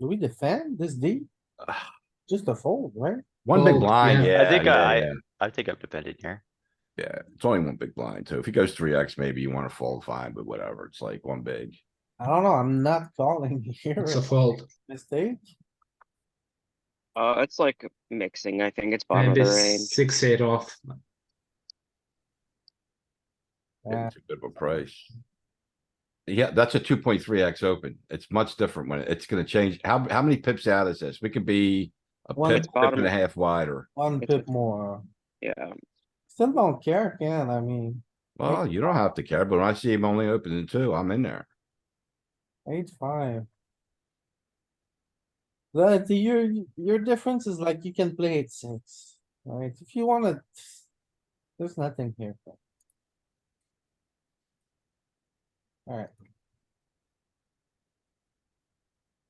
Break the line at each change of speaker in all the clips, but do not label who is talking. Do we defend this deep? Just a fold, right?
One big
Fold,
blind,
yeah.
yeah.
I think
yeah,
I-
yeah.
I think I've defended here.
Yeah, it's only one big blind, so if he goes three X, maybe you wanna fold fine, but whatever, it's like one big.
I don't know, I'm not calling here.
It's a fold.
Mistake.
Uh, it's like mixing, I think it's bottom of
Maybe
the range.
six, eight off.
Yeah.
It's a bit of a price. Yeah, that's a two point three X open. It's much different when it's gonna change. How, how many pips out is this? We could be a
One
pip, pip
bottom.
and a half wider.
One
It's a-
bit more.
Yeah,
Still don't care, Ken, I mean,
Well, you don't have to care, but when I see him only opening two, I'm in there.
eight, five. But your, your difference is like you can play eight, six, right? If you wanna. There's nothing here. Alright.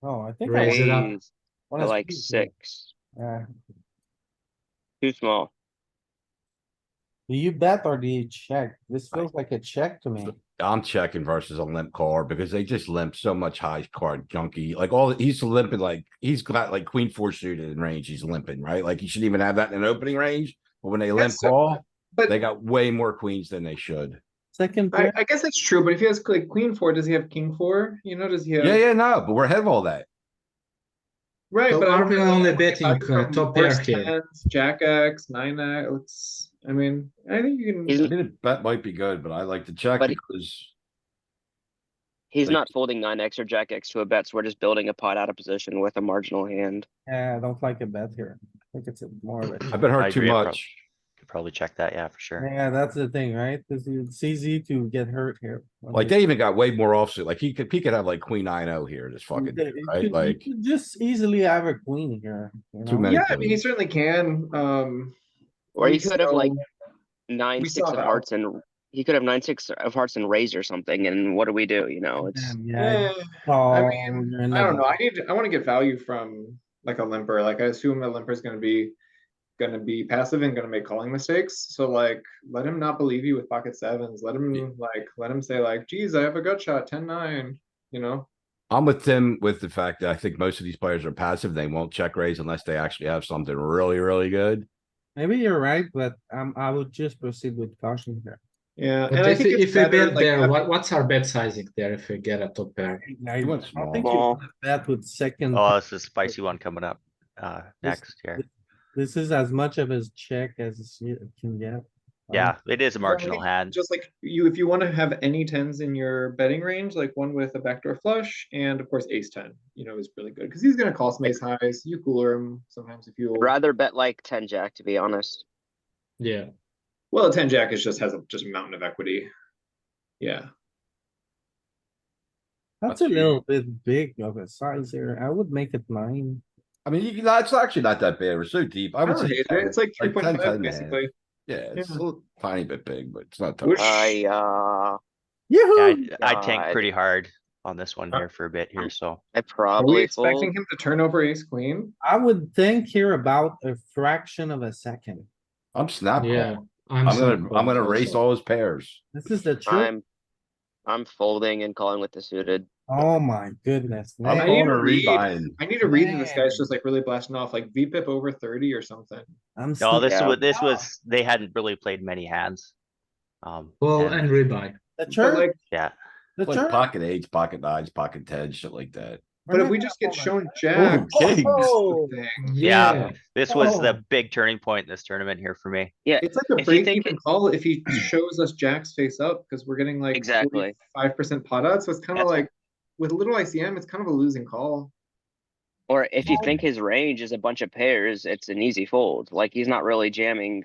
Oh, I think. I
Raise it up.
raise
wanna
to like
squeeze here.
six,
Yeah,
too small.
do you bet or do you check? This feels like a check to me.
I'm checking versus a limp card because they just limp so much high card junkie. Like all he's limping, like he's got like queen four suited in range. He's limping, right? Like he shouldn't even have that in an opening range. But when they limp
so-
call,
but-
they got way more queens than they should.
Second
I,
pair,
I guess that's true, but if he has like queen four, does he have king four? You know, does he have?
Yeah, yeah, no, but we're ahead of all that.
Right,
So
but I
are
don't
we
know,
only
like,
betting,
aside
uh,
from
top pair
worse
here?
hands, Jack X, nine X. I mean, I think you can.
I
He's,
mean, a bet might be good, but I like to check
But-
because
he's
Like-
not folding nine X or jack X to a bet, so we're just building a pot out of position with a marginal hand.
yeah, I don't like a bet here. I think it's a more of a,
I've been
I
hurt too
agree, I prob-
much.
Could probably check that, yeah, for sure.
yeah, that's the thing, right? 'Cause it's easy to get hurt here.
Like they even got way more offsuit. Like he could, he could have like queen nine oh here, this fucking,
You could-
dude,
you
right? Like
could Just easily have a queen here. you
too
know?
many.
Yeah, I mean, he
queens.
certainly can. Um,
Or
we
he could have like
saw-
nine,
we
six
saw
of
that.
hearts and, he could have nine, six of hearts and raise or something, and what do we do, you know, it's.
Damn, Yeah.
Yeah,
call,
mean,
you're in
Eh, I
the-
don't know. I need. I want to get value from like a limper. Like I assume a limper is going to be going to be passive and going to make calling mistakes. So like, let him not believe you with pocket sevens. Let him
Yeah.
like, let him say like, geez, I have a gut shot, 10-9, You know.
I'm with Tim with the fact that I think most of these players are passive. They won't check raise unless they actually have something really, really good.
Maybe you're right, but um, I would just proceed with caution here.
Yeah, and
But
I
if,
think
we-
it's
if we
better,
bet
like, uh,
there,
having-
what, what's our bet sizing there if we get a top pair?
I
You
don't
went
think you
small.
wanna bet with second,
Oh, this is a spicy one coming up, uh, next here.
this is as much of his check as you can get. right?
Yeah, it is a
Well, I
marginal
think
hand.
just like you if you want to have any tens in your betting range like one with a backdoor flush and of course ace 10 you know is really good because he's going to call some ace highs you cooler him sometimes if you
I'd Rather bet like ten jack, to be honest.
Yeah,
well a 10 jack is just has a, just a mountain of equity yeah
That's a little bit big of a size here. I would make it nine.
I mean, you can, that's actually not that bad. We're so deep. I
I
would
don't
say,
hate it. it's like
like 10,
3.5
10, man.
basically
yeah, it's a
Yeah.
little tiny bit big, but it's not.
We're
tough.
I, uh,
Yeah,
Yahoo!
I I tanked
God.
pretty hard on this one
Uh,
here for a bit here, so.
I
are we
probably fold.
expecting him to turn over ace queen
I would think here about a fraction of a second.
I'm snap.
yeah.
calling. I'm
sorry,
gonna, I'm gonna
but-
race all his pairs.
This is the truth.
I'm, I'm folding and calling with the suited.
Oh my goodness.
I'm
man.
need
going
to
to
read.
rebuying.
i need to read that this
Man.
guy's just like really blasting off like vpip over 30 or something
I'm.
No, this
Yeah.
was, this was, they hadn't really played many hands. Um,
Well,
and-
and rebuy.
The
but
church,
like
yeah,
the
Like
church.
pocket eights, pocket nines, pocket tens, shit like that.
but if we just get shown
Oh,
jack
kings.
thing
Yeah.
Yeah,
this was
Oh.
the big turning point in this tournament here for me.
Yeah,
It's like a
If you
break
think
even
it-
call if he shows us jacks face up, because we're getting like
Exactly.
five percent pot odds, so it's kind of
That's-
like, with little ICM, it's kind of a losing call.
Or if you think his range is a bunch of pairs, it's an easy fold. Like he's not really jamming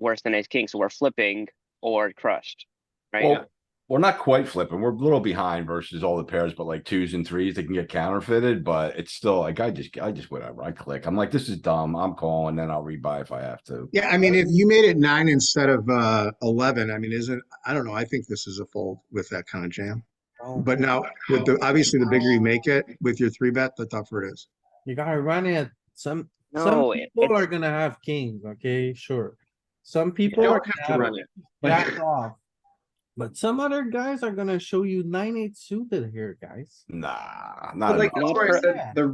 worse than ace king, so we're flipping or crushed, right?
Well, we're not quite flipping. We're a little behind versus all the pairs, but like twos and threes, they can get counterfeited, but it's still like, I just, I just, whatever, I click. I'm like, this is dumb. I'm calling, then I'll rebuy if I have to.
Yeah, I mean, if you made it nine instead of uh, eleven, I mean, isn't, I don't know, I think this is a fold with that kind of jam.
Oh,
But now, with the, obviously, the bigger you make it with your three bet, the tougher it is.
You gotta run it. Some,
No,
some
it-
people
it's-
are gonna have kings, okay, sure. Some people
You
are
don't
gonna
have to
have
run it.
jack off. But some other guys are gonna show you nine, eight suited here, guys.
Nah,
But
not
like,
like
that's where I
Not for-
said, the